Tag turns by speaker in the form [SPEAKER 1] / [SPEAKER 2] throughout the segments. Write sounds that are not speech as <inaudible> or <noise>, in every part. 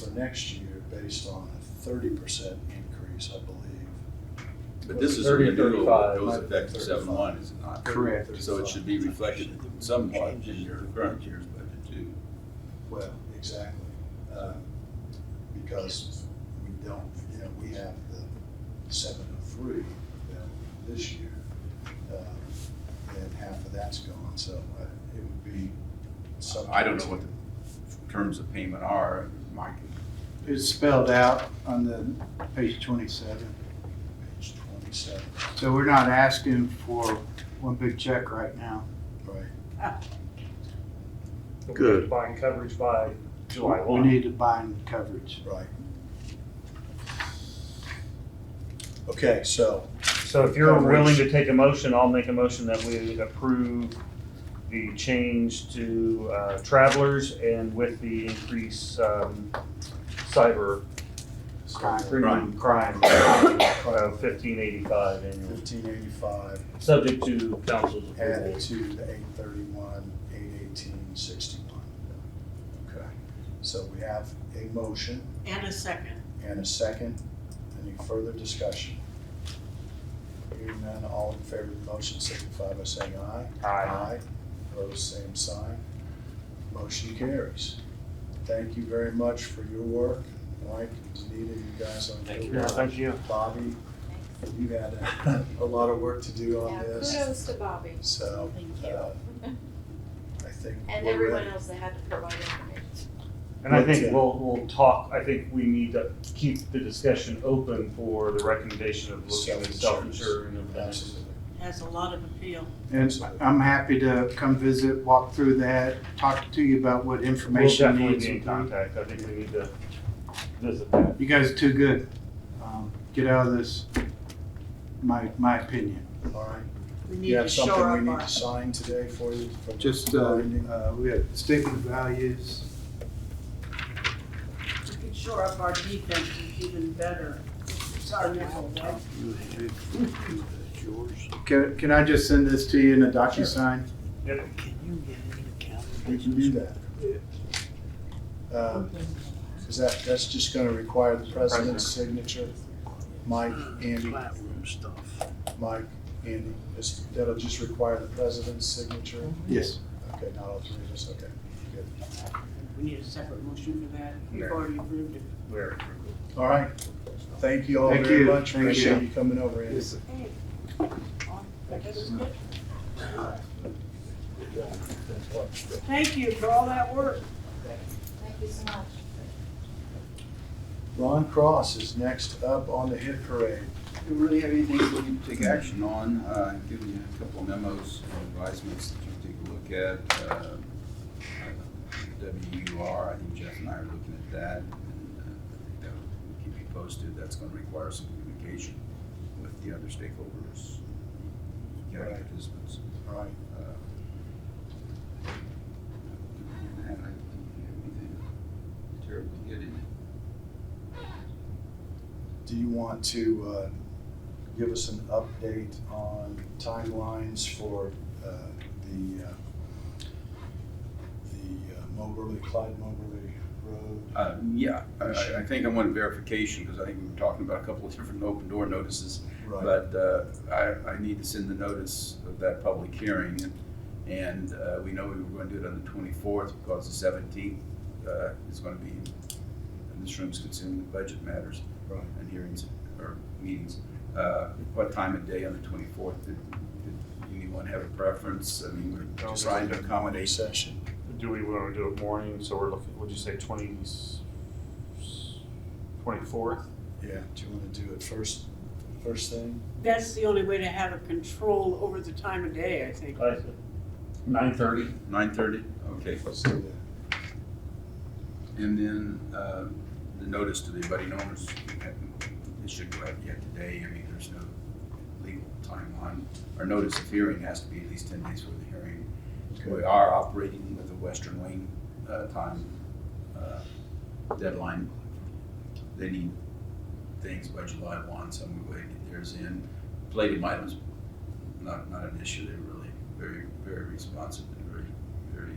[SPEAKER 1] for next year based on a thirty percent increase, I believe.
[SPEAKER 2] But this is a
[SPEAKER 3] 30,
[SPEAKER 2] renewal
[SPEAKER 3] 35,
[SPEAKER 2] that goes
[SPEAKER 1] might be
[SPEAKER 2] effective seven one, is it not?
[SPEAKER 1] Correct.
[SPEAKER 2] So it should be reflected somewhat in your current year's budget too.
[SPEAKER 1] Well, exactly. Uh, Because we don't, you know, we have the seven oh three available this year. uh, And half of that's gone, so uh, it would be something.
[SPEAKER 2] I don't know what the terms of payment are, Mike.
[SPEAKER 4] It's spelled out on the page twenty-seven.
[SPEAKER 1] Page twenty-seven,
[SPEAKER 4] So we're not asking for one big check right now.
[SPEAKER 1] right.
[SPEAKER 3] We're
[SPEAKER 5] Good.
[SPEAKER 3] Buying coverage by July
[SPEAKER 4] We
[SPEAKER 3] one.
[SPEAKER 4] need to bind coverage.
[SPEAKER 1] Right. Okay, so,
[SPEAKER 3] So if you're
[SPEAKER 1] Coverage.
[SPEAKER 3] willing to take a motion, I'll make a motion that we approve the change to uh, travelers and with the increase um, cyber premium crime of fifteen eighty-five annual,
[SPEAKER 1] fifteen eighty-five
[SPEAKER 3] subject to council's approval.
[SPEAKER 1] added to the eight thirty-one, eight eighteen, sixty-one. Okay, so we have a motion
[SPEAKER 6] And a second.
[SPEAKER 1] and a second. Any further discussion? Hearing none, all in favor of the motion signify by saying aye.
[SPEAKER 3] Aye.
[SPEAKER 1] Opposed, same sign. Motion carries. Thank you very much for your work. Mike, Danita, you guys on your
[SPEAKER 3] Yeah,
[SPEAKER 1] work.
[SPEAKER 3] Thank you.
[SPEAKER 1] Bobby, you had a- a lot of work to do on
[SPEAKER 7] Yeah,
[SPEAKER 1] this,
[SPEAKER 7] kudos to Bobby
[SPEAKER 1] so.
[SPEAKER 7] Thank
[SPEAKER 1] uh, I think.
[SPEAKER 7] <laughs> and
[SPEAKER 1] we're
[SPEAKER 7] everyone
[SPEAKER 1] ready.
[SPEAKER 7] else that had to provide information.
[SPEAKER 3] And I think we'll, we'll talk, I think we need to keep the discussion open for the recommendation of looking at self-insuring of that.
[SPEAKER 1] Absolutely.
[SPEAKER 6] Has a lot of appeal.
[SPEAKER 4] And I'm happy to come visit, walk through that, talk to you about what
[SPEAKER 3] We'll
[SPEAKER 4] information
[SPEAKER 3] definitely
[SPEAKER 4] needs.
[SPEAKER 3] be in contact, I think we need to visit that.
[SPEAKER 4] You guys are too good. Um, Get out of this, my, my opinion.
[SPEAKER 1] All right.
[SPEAKER 6] We need
[SPEAKER 1] You
[SPEAKER 6] to
[SPEAKER 1] have
[SPEAKER 6] shore
[SPEAKER 1] something
[SPEAKER 6] up
[SPEAKER 1] we need
[SPEAKER 6] our.
[SPEAKER 1] to sign today for you? for the
[SPEAKER 4] Just, uh,
[SPEAKER 1] binding?
[SPEAKER 4] uh, we have statement of values.
[SPEAKER 6] We can shore up our defense even better. It's our nickel, right?
[SPEAKER 4] Can, can I just send this to you in a DocuSign?
[SPEAKER 1] We can do that. Um, Is that, that's just gonna require the president's signature? Mike, Andy? Mike, Andy, It's- that'll just require the president's signature?
[SPEAKER 4] Yes.
[SPEAKER 1] Okay, not all three of us, okay. Good.
[SPEAKER 6] We need a separate motion for that. We've
[SPEAKER 3] Yeah.
[SPEAKER 6] already approved it.
[SPEAKER 3] Where?
[SPEAKER 1] All right. Thank you all
[SPEAKER 4] Thank
[SPEAKER 1] very
[SPEAKER 4] you.
[SPEAKER 1] much.
[SPEAKER 4] Thank you.
[SPEAKER 1] Appreciate you coming over, Andy.
[SPEAKER 4] Yes.
[SPEAKER 6] Thank you for all that work.
[SPEAKER 7] Thank you so much.
[SPEAKER 1] Ron Cross is next up on the hit parade.
[SPEAKER 2] Do we really have anything we need to take action on? Uh, I've given you a couple of memos and advisements that you can take a look at. Uh, WUR, I think Jeff and I are looking at that. and uh, I think that will keep you posted. That's going to require some communication with the other stakeholders, county participants.
[SPEAKER 1] All right.
[SPEAKER 2] Uh, And I don't think we have anything terribly good in it.
[SPEAKER 1] Do you want to uh, give us an update on timelines for uh, the, uh, the uh, Moberly, Clyde Moberly Road?
[SPEAKER 2] Uh, Yeah, I- I I think I want verification because I think we were talking about a couple of different open door notices.
[SPEAKER 1] Right,
[SPEAKER 2] But uh, I I need to send the notice of that public hearing. and- And uh, we know we were going to do it on the 24th because the 17th uh, is going to be, and this room's considering the budget matters
[SPEAKER 1] right.
[SPEAKER 2] and hearings or meetings. Uh, What time of day on the 24th? Did did anyone have a preference? I mean, we're trying to
[SPEAKER 1] A
[SPEAKER 2] accommodate
[SPEAKER 1] session.
[SPEAKER 3] Do we want to do it morning, so we're looking, would you say twenty, twenty-fourth?
[SPEAKER 1] Yeah, do you want to do it first, first thing?
[SPEAKER 6] That's the only way to have a control over the time of day, I think.
[SPEAKER 3] Nine thirty.
[SPEAKER 2] 9:30? Okay.
[SPEAKER 1] Let's do that.
[SPEAKER 2] And then uh, the notice to the abutting owners, it should go out yet today, I mean, there's no legal timeline. Our notice of hearing has to be at least ten days for the hearing. We
[SPEAKER 1] Okay.
[SPEAKER 2] are operating with a western wing uh, time uh, deadline. They need things by July one, so I'm gonna get theirs in. Plated items, not, not an issue, they're really very, very responsive and very, very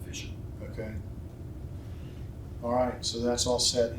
[SPEAKER 2] efficient.
[SPEAKER 1] Okay. All right, so that's all set.